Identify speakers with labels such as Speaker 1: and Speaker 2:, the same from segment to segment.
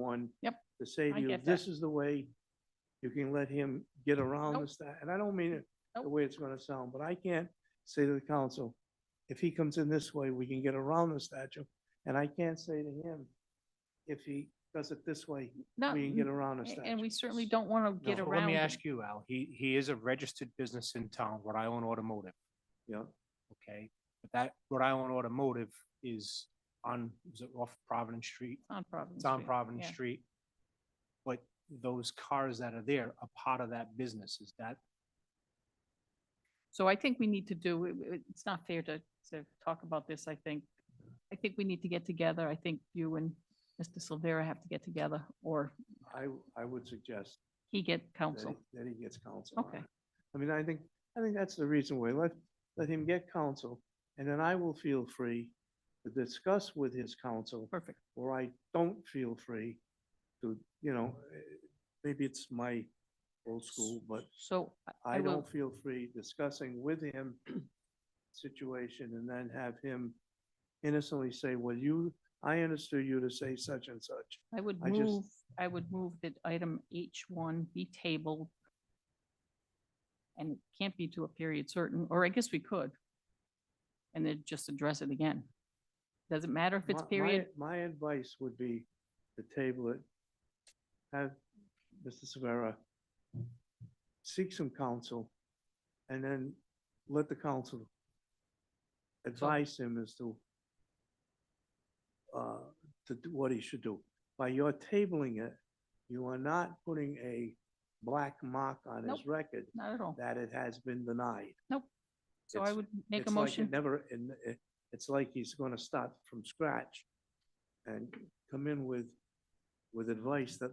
Speaker 1: one.
Speaker 2: Yep.
Speaker 1: To say
Speaker 2: I
Speaker 1: to you,
Speaker 2: get that.
Speaker 1: this is the way you can let him get around
Speaker 2: Nope.
Speaker 1: this, that, and I don't mean it the
Speaker 2: Nope.
Speaker 1: way it's gonna sound, but I can't say to the council, if he comes in this way, we can get around the statute, and I can't say to him, if he does it this way,
Speaker 2: No,
Speaker 1: we can get around the
Speaker 2: a-
Speaker 1: statute.
Speaker 2: and we certainly don't want to get
Speaker 1: No.
Speaker 2: around.
Speaker 3: Let me
Speaker 2: it.
Speaker 3: ask you, Al, he, he is a registered business in town, Rhode Island Automotive,
Speaker 1: Yeah,
Speaker 3: okay? But that Rhode Island Automotive is on, is it off Providence Street?
Speaker 2: On Providence
Speaker 3: It's on
Speaker 2: Street,
Speaker 3: Providence
Speaker 2: yeah.
Speaker 3: Street. But those cars that are there are part of that business. Is that,
Speaker 2: So I think we need to do, it- it- it's not fair to, to talk about this, I think. I think we need to get together. I think you and Mr. Silvera have to get together, or
Speaker 1: I, I would suggest
Speaker 2: he get
Speaker 1: that he,
Speaker 2: counsel.
Speaker 1: that he gets counsel. on
Speaker 2: Okay.
Speaker 1: it. I mean, I think, I think that's the reason why, let, let him get counsel, and then I will feel free to discuss with his counsel
Speaker 2: Perfect.
Speaker 1: or I don't feel free to, you know, eh, maybe it's my old school, but
Speaker 2: So I- I
Speaker 1: I
Speaker 2: will,
Speaker 1: don't feel free discussing with him situation and then have him innocently say, well, you, I understood you to say such and such.
Speaker 2: I would
Speaker 1: I just-
Speaker 2: move, I would move that item H one be tabled. And it can't be to a period certain, or I guess we could. And then just address it again. Doesn't matter if it's
Speaker 1: My- my-
Speaker 2: period,
Speaker 1: My advice would be to table it. Have Mr. Severa seek some counsel and then let the council advise him as to uh, to do what he should do. By your tabling it, you are not putting a black mark on his
Speaker 2: Nope.
Speaker 1: record
Speaker 2: not at all.
Speaker 1: that it has been denied.
Speaker 2: So I
Speaker 1: it's-
Speaker 2: would make a
Speaker 1: It's like it
Speaker 2: motion.
Speaker 1: Never, and it, it's like he's gonna start from scratch and come in with, with advice that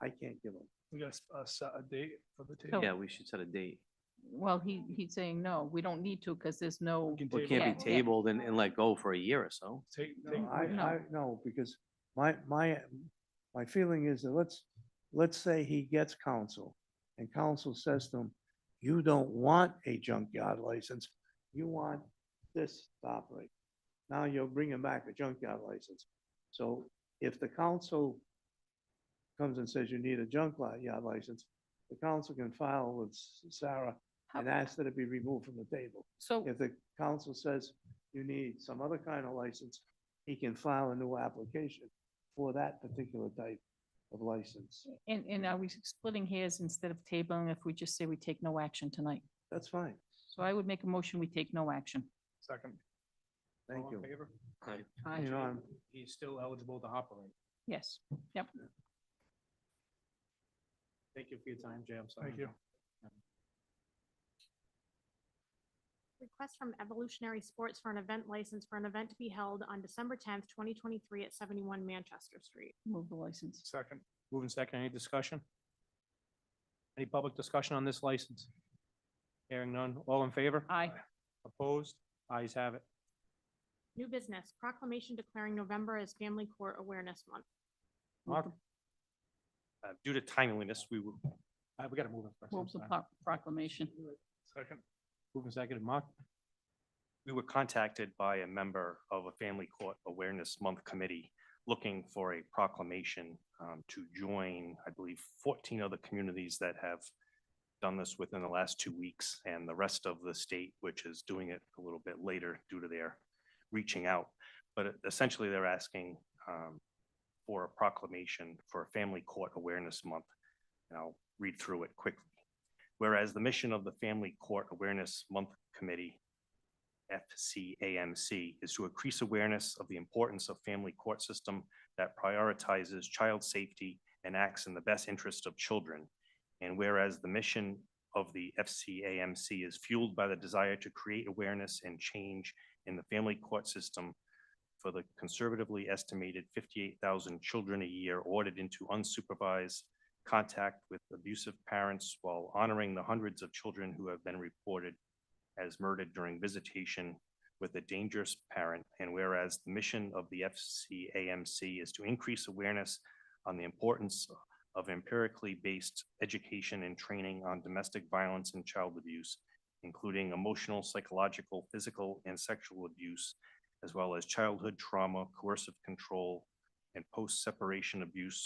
Speaker 1: I can't give him.
Speaker 4: We got a, set a date for the
Speaker 2: So-
Speaker 5: Oh.
Speaker 4: table.
Speaker 6: Yeah, we should set a date.
Speaker 2: Well, he, he's saying, no, we don't need to because there's no,
Speaker 4: We can
Speaker 6: Well,
Speaker 4: table
Speaker 6: It can't be
Speaker 2: Yeah, yeah.
Speaker 6: tabled and, and let go for a year or so.
Speaker 4: Take, take,
Speaker 1: No, I,
Speaker 2: No.
Speaker 1: I, no, because my, my, my feeling is that let's, let's say he gets counsel and counsel says to him, you don't want a junkyard license, you want this to operate. Now you're bringing back a junkyard license. So if the council comes and says you need a junkyard license, the council can file with Sarah
Speaker 2: How-
Speaker 1: and ask that it be removed from the table.
Speaker 2: so,
Speaker 1: If the council says you need some other kind of license, he can file a new application for that particular type of license.
Speaker 2: and, and are we splitting hairs instead of tabling if we just say we take no action tonight?
Speaker 1: That's fine.
Speaker 2: So I would make a motion, we take no action.
Speaker 4: second. All
Speaker 1: Thank
Speaker 4: in
Speaker 1: you.
Speaker 4: favor?
Speaker 1: You know, I'm,
Speaker 3: he's still eligible to operate?
Speaker 2: Yes,
Speaker 3: Thank you for your time, Jay. I'm sorry.
Speaker 4: Thank you.
Speaker 7: Request from Evolutionary Sports for an event license for an event to be held on December tenth, twenty twenty-three at seventy-one Manchester Street.
Speaker 2: move the license.
Speaker 4: Second.
Speaker 3: Moving second, any discussion? Any public discussion on this license? Hearing none. All in favor?
Speaker 2: Aye,
Speaker 3: Opposed? Ayes have it.
Speaker 7: New business proclamation declaring November as Family Court Awareness Month.
Speaker 3: Mark?
Speaker 1: Mm-hmm.
Speaker 3: Uh, Due to timeliness, we will, uh, we gotta move it first. I'm
Speaker 2: move the
Speaker 3: sorry.
Speaker 2: pro- proclamation.
Speaker 4: Second.
Speaker 3: Moving second, Mark?
Speaker 5: we were contacted by a member of a Family Court Awareness Month Committee looking for a proclamation um, to join, I believe, 14 other communities that have done this within the last two weeks and the rest of the state, which is doing it a little bit later due to their reaching out. But essentially, they're asking um, for a proclamation for Family Court Awareness Month. And I'll read through it quickly. Whereas the mission of the Family Court Awareness Month Committee FCAMC is to increase awareness of the importance of family court system that prioritizes child safety and acts in the best interest of children. And whereas the mission of the FCAMC is fueled by the desire to create awareness and change in the family court system for the conservatively estimated 58,000 children a year ordered into unsupervised contact with abusive parents while honoring the hundreds of children who have been reported as murdered during visitation with a dangerous parent. And whereas the mission of the FCAMC is to increase awareness on the importance of empirically based education and training on domestic violence and child abuse, including emotional, psychological, physical, and sexual abuse, as well as childhood trauma, coercive control, and post-separation abuse